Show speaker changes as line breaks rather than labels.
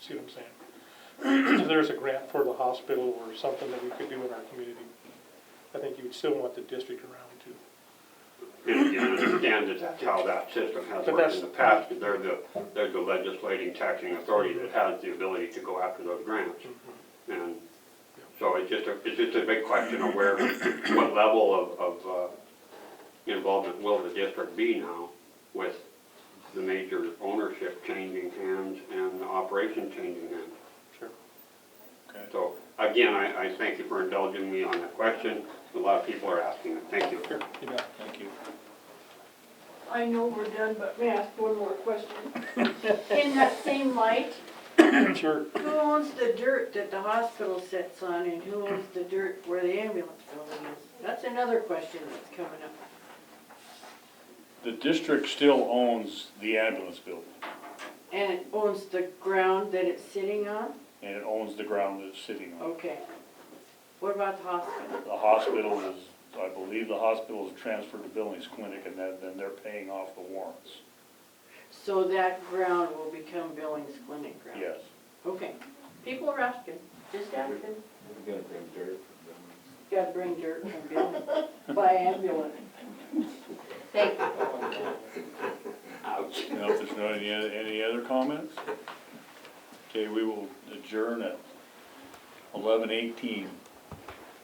See what I'm saying? If there's a grant for the hospital or something that we could do in our community, I think you would still want the district around too.
And you understand that that's how that system has
But
worked
that's-
in the past, because they're the, they're the legislating taxing authority that has the ability to go after those grants.
Mm-hmm.
And so it's just a, it's just a big question of where, what level of, of uh, involvement will the district be now with the major ownership changing hands and the operation changing hands?
Sure.
Okay.
So again, I, I thank you for indulging me on that question. A lot of people are asking it. Thank you.
You bet. Thank you.
I know we're done, but may I ask one more question? In that same light,
Sure.
who owns the dirt that the hospital sits on and who owns the dirt where the ambulance building is? That's another question that's coming up.
The district still owns the ambulance building,
And it owns the ground that it's sitting on?
and it owns the ground that it's sitting on.
Okay. What about the hospital?
The hospital is, I believe the hospital is transferred to Billings Clinic, and then, then they're paying off the warrants.
So that ground will become Billings Clinic ground?
Yes.
Okay. People are asking, just asking.
We're gonna bring dirt from them.
Gotta bring dirt from Billings by ambulance. Thank you.
Now, if there's not any, other- any other comments? Okay, we will adjourn at eleven eighteen.